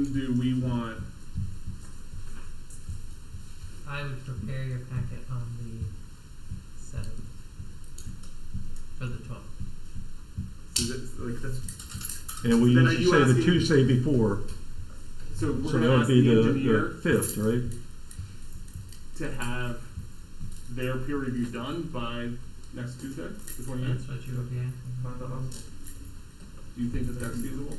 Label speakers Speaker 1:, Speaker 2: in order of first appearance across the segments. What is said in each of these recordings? Speaker 1: Who do we want?
Speaker 2: I would prepare your packet on the seventh. For the twelfth.
Speaker 1: Is it, like, that's,
Speaker 3: And we
Speaker 1: Then are you
Speaker 3: used to say the
Speaker 1: asking-
Speaker 3: Tuesday before,
Speaker 1: so we're
Speaker 3: so that
Speaker 1: gonna
Speaker 3: would
Speaker 1: ask
Speaker 3: be
Speaker 1: the
Speaker 3: the,
Speaker 1: engineer
Speaker 3: the fifth, right?
Speaker 1: to have their peer review done by next Tuesday, the 29th.
Speaker 2: That's what you would be asking.
Speaker 1: Do you think that that's feasible?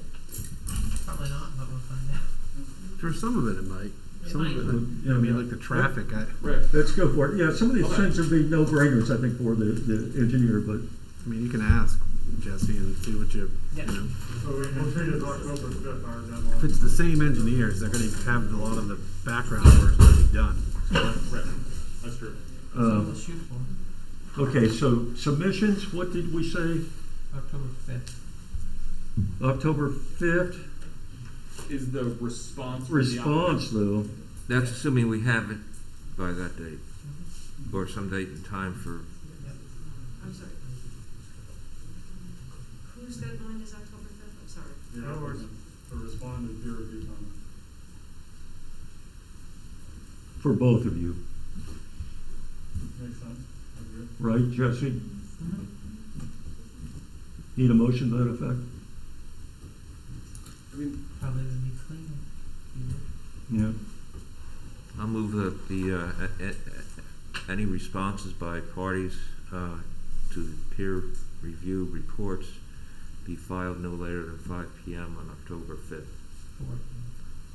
Speaker 2: Probably not, but we'll find out.
Speaker 4: For some of it, it might.
Speaker 2: It
Speaker 4: Some of
Speaker 2: might.
Speaker 4: it, I mean, like the traffic, I,
Speaker 1: Right.
Speaker 3: Let's go for it. Yeah, some of these
Speaker 1: Okay.
Speaker 3: things would be no-brainers, I think, for the, the engineer, but
Speaker 4: I mean, you can ask Jesse and see what you, you
Speaker 2: Yeah.
Speaker 4: know.
Speaker 5: So we- we'll treat it as October fifth, our
Speaker 4: If
Speaker 5: deadline.
Speaker 4: it's the same engineers, they're gonna have a lot of the background work already done.
Speaker 1: Right. That's true.
Speaker 2: So
Speaker 3: Uh,
Speaker 2: we'll shoot for
Speaker 3: Okay, so submissions, what did we say?
Speaker 2: October fifth.
Speaker 3: October 5th?
Speaker 1: Is the response from the
Speaker 3: Response, though,
Speaker 6: That's assuming we have it by that date, or some date and time for,
Speaker 7: I'm sorry. Whose deadline is October fifth? I'm sorry.
Speaker 5: The hours to respond to peer review comments.
Speaker 3: for both of you,
Speaker 5: Makes sense? Agree?
Speaker 3: right, Jesse? Need a motion to that effect?
Speaker 1: I mean,
Speaker 2: Probably would be cleaner. you know?
Speaker 3: Yeah.
Speaker 6: I'll move the, the, uh, a- a- a- any responses by parties, uh, to the peer review reports be filed no later than five P M on October fifth,
Speaker 2: Four.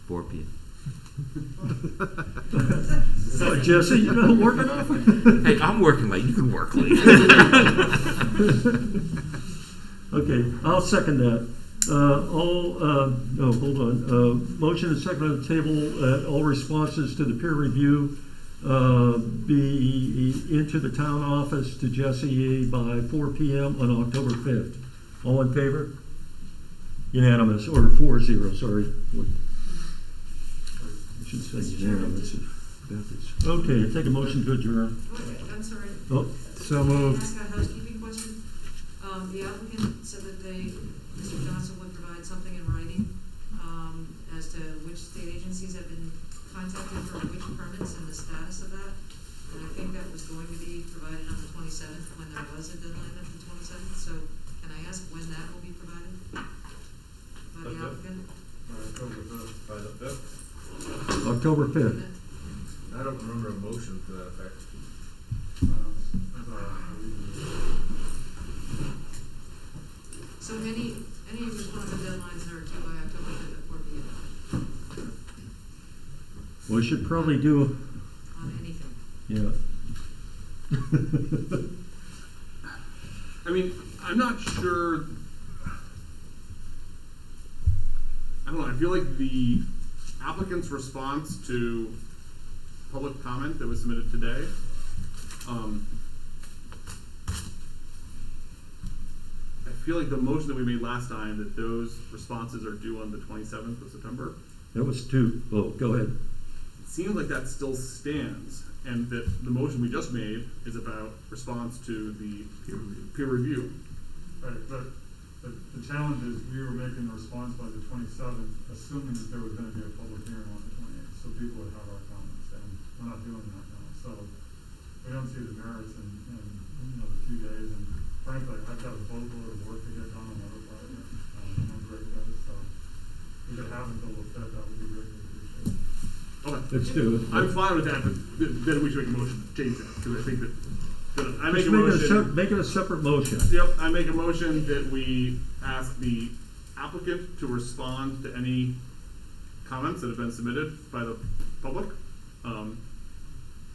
Speaker 6: four P M.
Speaker 3: Uh, Jesse, you know, working off it?
Speaker 6: Hey, I'm working late, you can work late.
Speaker 3: Okay, I'll second that. Uh, all, uh, no, hold on, uh, motion and second on the table, uh, all responses to the peer review, uh, be into the town office to Jesse by four P M on October fifth. All in favor? Unanimous, or four zero, sorry. I should say unanimous. Okay, take a motion to adjourn.
Speaker 7: Wait, I'm sorry.
Speaker 3: Oh,
Speaker 4: So
Speaker 7: Can I
Speaker 4: moved.
Speaker 7: ask a housekeeping question? Um, the applicant said that they, Mr. Johnson would provide something in writing, um, as to which state agencies have been contacted for which permits and the status of that. And I think that was going to be provided on the twenty-seventh, when there was a deadline of the twenty-seventh, so can I ask when that will be provided? By the
Speaker 4: Uh,
Speaker 7: applicant?
Speaker 5: By October fifth. By the fifth?
Speaker 3: October fifth.
Speaker 5: I don't remember a motion to that effect.
Speaker 7: So any, any response to deadlines are due by October fifth at four P M.
Speaker 3: We should probably do
Speaker 7: on anything.
Speaker 3: Yeah.
Speaker 1: I mean, I'm not sure. I don't know. I feel like the applicant's response to public comment that was submitted today. Um, I feel like the motion that we made last time that those responses are due on the 27th of September.
Speaker 3: That was two. Oh, go ahead.
Speaker 1: It seems like that still stands, and that the motion we just made is about response to the peer review. Peer review.
Speaker 5: Right, but, but the challenge is we were making the response by the twenty-seventh, assuming that there was gonna be a public hearing on the twenty-eighth, so people would have our comments, and we're not doing that now, so we don't see the merits in, in, you know, the few days, and frankly, I've got a boatload of work to get done on other projects, um, and I'm great guys, so if it happens until the fifth, that would be greatly appreciated.
Speaker 1: Okay.
Speaker 3: Let's do it.
Speaker 1: I'm fine with that, but th- then we should make a motion to change that, because I think that, that I make a
Speaker 3: Just make it a sep-
Speaker 1: motion.
Speaker 3: make it a separate motion.
Speaker 1: Yep, I make a motion that we ask the applicant to respond to any comments that have been submitted by the public, um,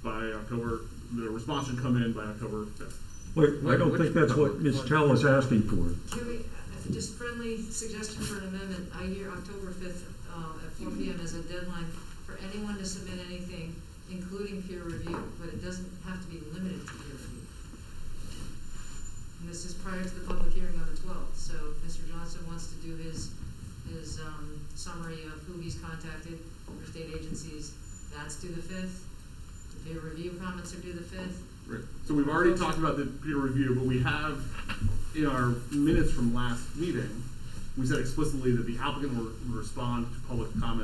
Speaker 1: by October, the response should come in by October fifth.
Speaker 3: Wait, I
Speaker 6: Wait,
Speaker 3: don't
Speaker 6: which
Speaker 3: think that's what
Speaker 6: public?
Speaker 3: Ms. Chow was asking for.
Speaker 7: Can we, uh, just friendly suggestion for an amendment, I hear October fifth, uh, at four P M as a deadline for anyone to submit anything, including peer review, but it doesn't have to be limited to peer review. And this is prior to the public hearing on the twelfth, so if Mr. Johnson wants to do his, his, um, summary of who he's contacted for state agencies, that's due the fifth. The peer review comments are due the fifth,
Speaker 1: Right. So we've already talked about the peer review, but we have, in our minutes from last meeting, we said explicitly that the applicant will respond to public comment